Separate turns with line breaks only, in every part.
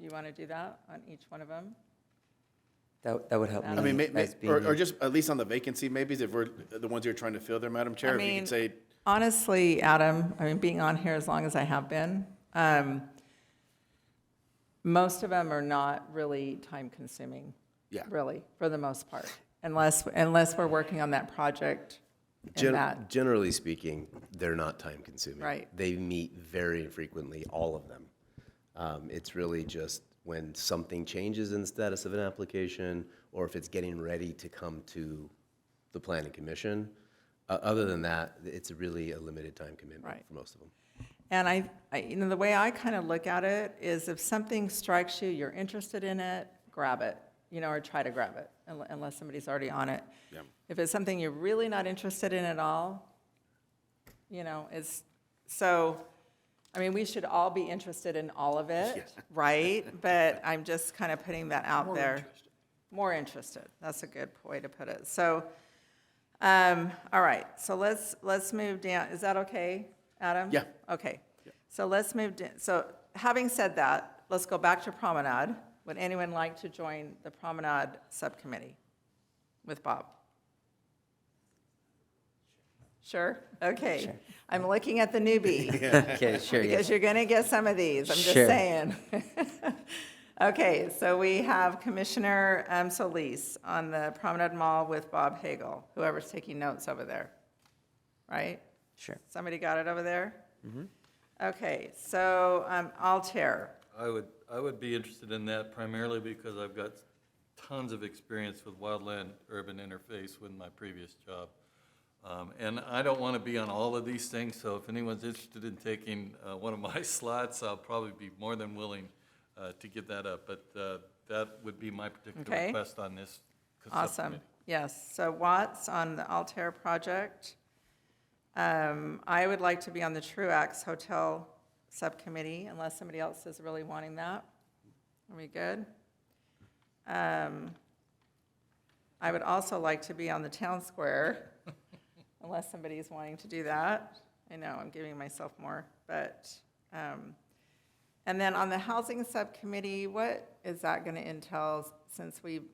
you want to do that on each one of them?
That, that would help me.
I
I mean, may- may-
as being
or, or
the-
just at least on the vacancy, maybe if we're the ones you're trying to fill there, Madam Chair, if you
mean-
could say,
Honestly, Adam, I mean, being on here as long as I have been, um, most of them are not really time-consuming.
Yeah.
Really, for the most part, unless, unless we're working on that project and
Gen-
that.
Generally speaking, they're not time consuming.
Right.
They meet very infrequently, all of them. Um, it's really just when something changes in the status of an application or if it's getting ready to come to the planning commission. Uh, other than that, it's really a limited time commitment
Right.
for most of them.
And I, I, you know, the way I kind of look at it is if something strikes you, you're interested in it, grab it, you know, or try to grab it, unle- unless somebody's already on it. If it's something you're really not interested in at all, you know, it's, so, I mean, we should all be interested in all of it, right? But I'm just kind of putting that out there. More interested, that's a good way to put it. So, um, all right, so let's, let's move down, is that okay, Adam?
Yeah.
Okay, so let's move, da- so having said that, let's go back to Promenade. Would anyone like to join the Promenade Subcommittee with Bob? Sure, okay. I'm looking at the newbie,
Okay, sure, yes.
because you're gonna get some of these, I'm just
Sure.
saying. Okay, so we have Commissioner um, Solis on the Promenade Mall with Bob Hagel, whoever's taking notes over there, right?
Sure.
Somebody got it over there? Okay, so um, Altair,
I would, I would be interested in that primarily because I've got tons of experience with wildland urban interface with my previous job. Um, And I don't want to be on all of these things, so if anyone's interested in taking uh, one of my slots, I'll probably be more than willing uh, to give that up. But uh, that would be my particular
Okay.
request on this
awesome.
subcommittee.
Yes, so Watts on the Altair project. Um, I would like to be on the Truax Hotel Subcommittee unless somebody else is really wanting that. Are we good? Um, I would also like to be on the Town Square unless somebody is wanting to do that. I know, I'm giving myself more, but, um, and then on the Housing Subcommittee, what is that going to entail since we've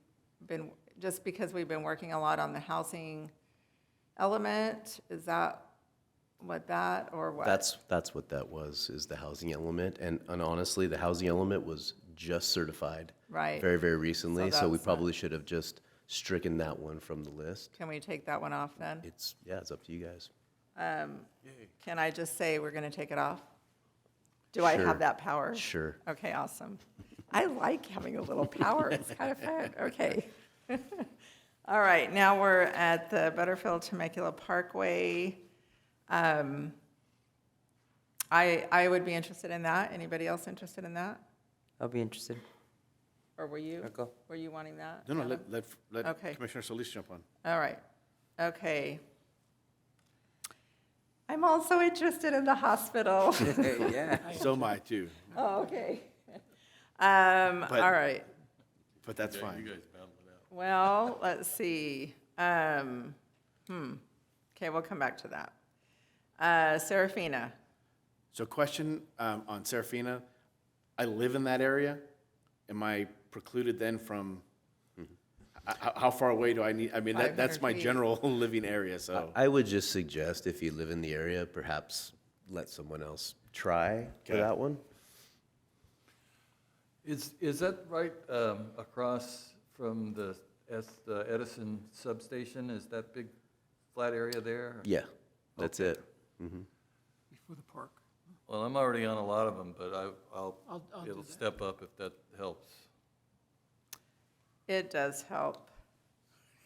been, just because we've been working a lot on the housing element? Is that what that, or what?
That's, that's what that was, is the housing element. And, and honestly, the housing element was just certified
Right.
very, very recently. So we
that's not-
probably should have just stricken that one from the list.
Can we take that one off then?
It's, yeah, it's up to you guys.
Can I just say we're going to take it off? Do I have
Sure.
that power?
Sure.
Okay, awesome. I like having a little power. It's kind of fun. Okay. All right, now we're at the Butterfield Temecula Parkway. Um, I, I would be interested in that. Anybody else interested in that?
I'll be interested.
Or were you?
I'll go.
Were you wanting that?
no, no,
Adam?
let, let,
Okay.
let Commissioner Solis jump on.
All right, okay. I'm also interested in the hospital.
Yeah.
So am I too,
Oh, okay. Um,
But-
all right.
but that's
Yeah, You
fine.
guys battle it out.
Well, let's see. Um, hmm. Okay, we'll come back to that. Uh, Serafina.
So question um, on Serafina, I live in that area. Am I precluded then from, h- h- how far away do I need, I mean, that, that's
500
my
feet.
general living area, so.
I would just suggest if you live in the area, perhaps let someone else try for
Okay.
that one.
Is, is that right um, across from the Es- the Edison substation? Is that big flat area there?
Yeah, that's it.
before the park.
Well, I'm already on a lot of them, but I, I'll,
I'll- I'll do
it'll
that.
step up if that helps.
It does help.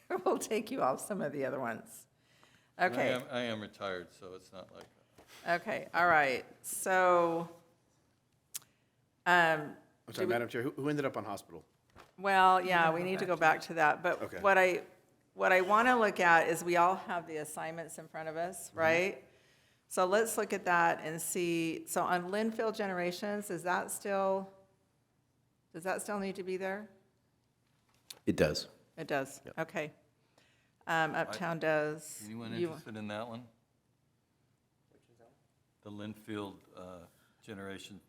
We'll take you off some of the other ones.
And I um,
Okay,
am- I am retired, so it's not like,
okay, all right. So, um,
I'm sorry, Madam Chair, who, who ended up on hospital?
Well, yeah, we need to go back to that,
Okay.
but what I, what I want to look at is we all have the assignments in front of us, right? So let's look at that and see, so on Linfield Generations, is that still, does that still need to be there?
It does.
It does, okay. Um, Uptown does.
anyone
You-
interested in that one? The Linfield uh, Generation